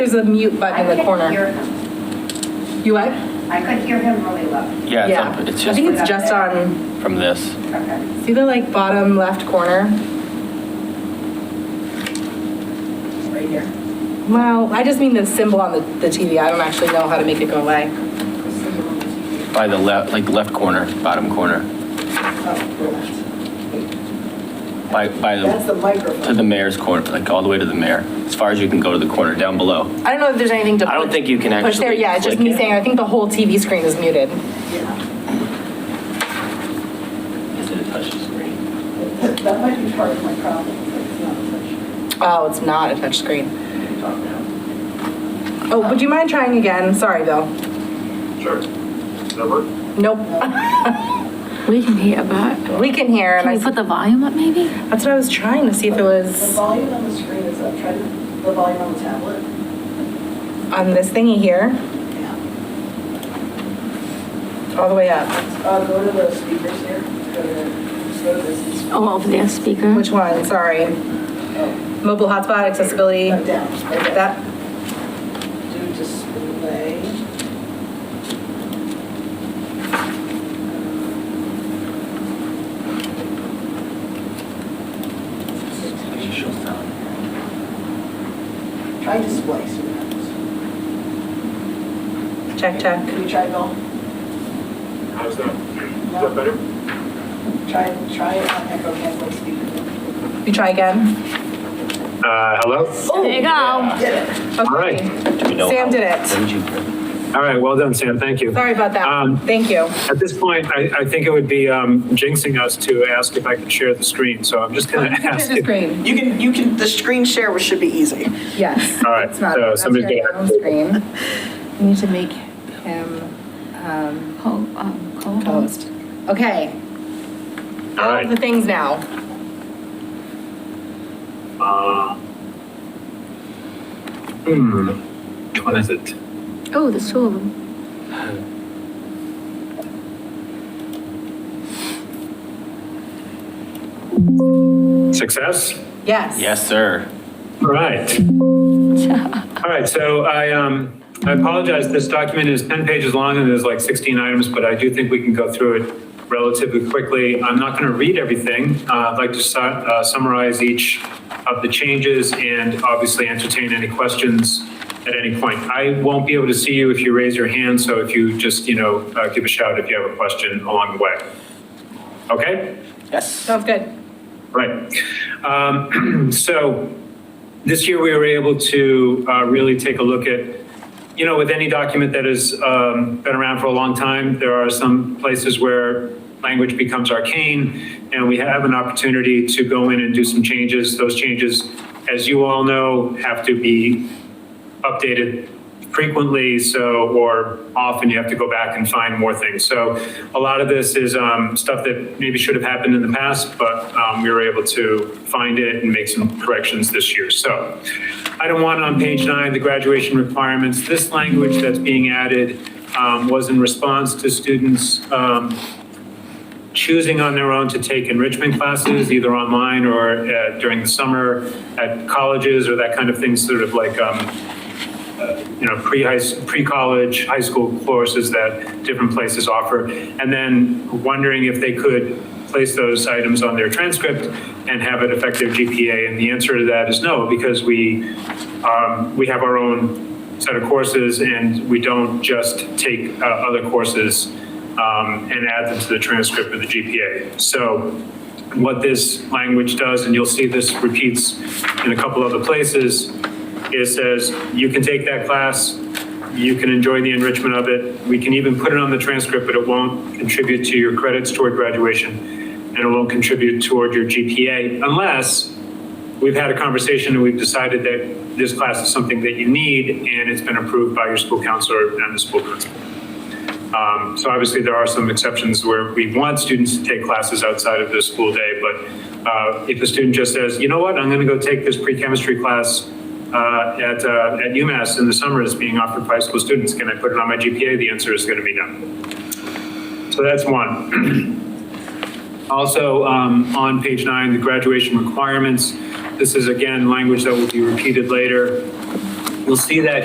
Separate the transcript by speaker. Speaker 1: There's a mute button in the
Speaker 2: I
Speaker 1: corner.
Speaker 2: couldn't hear him.
Speaker 1: You what?
Speaker 2: I could hear him really low.
Speaker 3: Yeah, it's up- it's
Speaker 1: I
Speaker 3: just
Speaker 1: think it's just on,
Speaker 3: from this.
Speaker 2: Okay.
Speaker 1: see the like bottom left corner?
Speaker 2: Right here.
Speaker 1: Well, I just mean the symbol on the, the TV. I don't actually know how to make it go away.
Speaker 3: By the left, like left corner, bottom corner, by, by,
Speaker 4: That's the
Speaker 3: the to
Speaker 4: microphone.
Speaker 3: the mayor's corner, like all the way to the mayor, as far as you can go to the corner, down below.
Speaker 1: I don't know if there's anything to.
Speaker 3: I don't think you can
Speaker 1: push there.
Speaker 3: actually
Speaker 1: Yeah, it's just
Speaker 3: click
Speaker 1: me
Speaker 3: it.
Speaker 1: saying, I think the whole TV screen is muted.
Speaker 3: Did it touch the screen?
Speaker 4: That that might be part of my problem, but it's not much.
Speaker 1: Oh, it's not a touch screen. Oh, would you mind trying again? Sorry, Bill.
Speaker 5: Sure. Number?
Speaker 1: Nope.
Speaker 6: We can hear about.
Speaker 1: We can hear and
Speaker 6: Can
Speaker 1: I,
Speaker 6: you put the volume up maybe?
Speaker 1: that's what I was trying to see if it
Speaker 4: The
Speaker 1: was
Speaker 4: volume on the screen is up, try to, the volume on the tablet.
Speaker 1: on this thingy here,
Speaker 4: Yeah.
Speaker 1: all the way up.
Speaker 4: Uh, go to the speakers here, go to, just go to this.
Speaker 6: Oh, over there, speaker.
Speaker 1: Which one? Sorry.
Speaker 4: Oh,
Speaker 1: Mobile hotspot accessibility.
Speaker 4: Right down, right down.
Speaker 1: That,
Speaker 4: Do display. Try display, see what happens.
Speaker 1: check, check.
Speaker 4: Can you try, Bill?
Speaker 5: How's that? Is that better?
Speaker 4: Try, try it on Echo Campus speaker.
Speaker 1: You try again.
Speaker 5: Uh, hello?
Speaker 6: There you go.
Speaker 4: Did it.
Speaker 1: Okay.
Speaker 5: right.
Speaker 3: Do we know
Speaker 1: Sam
Speaker 3: how-
Speaker 1: did it.
Speaker 3: What did you?
Speaker 5: All right, well done, Sam, thank you.
Speaker 1: Sorry about
Speaker 5: Um,
Speaker 1: that. Thank you.
Speaker 5: At this point, I, I think it would be um, jinxing us to ask if I could share the screen, so I'm just gonna ask.
Speaker 1: The
Speaker 5: if-
Speaker 1: screen.
Speaker 7: You can, you can, the screen share should be easy.
Speaker 1: Yes.
Speaker 5: All right,
Speaker 1: It's not-
Speaker 5: so
Speaker 1: that's
Speaker 5: somebody's
Speaker 1: your
Speaker 5: gonna have
Speaker 1: own
Speaker 5: to-
Speaker 1: Screen. You need to make him, um,
Speaker 6: Ho- um, co-host.
Speaker 1: host. Okay.
Speaker 5: All
Speaker 1: All of
Speaker 5: right.
Speaker 1: the things now.
Speaker 5: Uh, Hmm, which one is it?
Speaker 6: Oh, there's two of them.
Speaker 5: Success?
Speaker 1: Yes.
Speaker 3: Yes, sir.
Speaker 5: All right. All right, so I, um, I apologize, this document is 10 pages long and there's like 16 items, but I do think we can go through it relatively quickly. I'm not going to read everything. Uh, I'd like to su- uh, summarize each of the changes and obviously entertain any questions at any point. I won't be able to see you if you raise your hand, so if you just, you know, uh, give a shout if you have a question along the way. Okay?
Speaker 3: Yes.
Speaker 1: Sounds good.
Speaker 5: Right. Um, So this year, we were able to uh, really take a look at, you know, with any document that has um, been around for a long time, there are some places where language becomes arcane, and we have an opportunity to go in and do some changes. Those changes, as you all know, have to be updated frequently, so, or often you have to go back and find more things. So a lot of this is um, stuff that maybe should have happened in the past, but um, we were able to find it and make some corrections this year. So item one on page nine, the graduation requirements, this language that's being added um, was in response to students um, choosing on their own to take enrichment classes, either online or uh, during the summer at colleges or that kind of thing, sort of like um, you know, pre-high, pre-college, high school courses that different places offer, and then wondering if they could place those items on their transcript and have it affect their GPA, and the answer to that is no, because we, um, we have our own set of courses, and we don't just take uh, other courses um, and add them to the transcript of the GPA. So what this language does, and you'll see this repeats in a couple other places, it says, you can take that class, you can enjoy the enrichment of it, we can even put it on the transcript, but it won't contribute to your credits toward graduation, and it won't contribute toward your GPA, unless we've had a conversation and we've decided that this class is something that you need, and it's been approved by your school counselor and the school principal. Um, So obviously, there are some exceptions where we want students to take classes outside of the school day, but uh, if a student just says, you know what, I'm going to go take this pre-chemistry class uh, at uh, at UMass in the summer that's being offered by school students, can I put it on my GPA? The answer is going to be no. So that's one. Also, um, on page nine, the graduation requirements, this is again, language that will be repeated later. You'll see that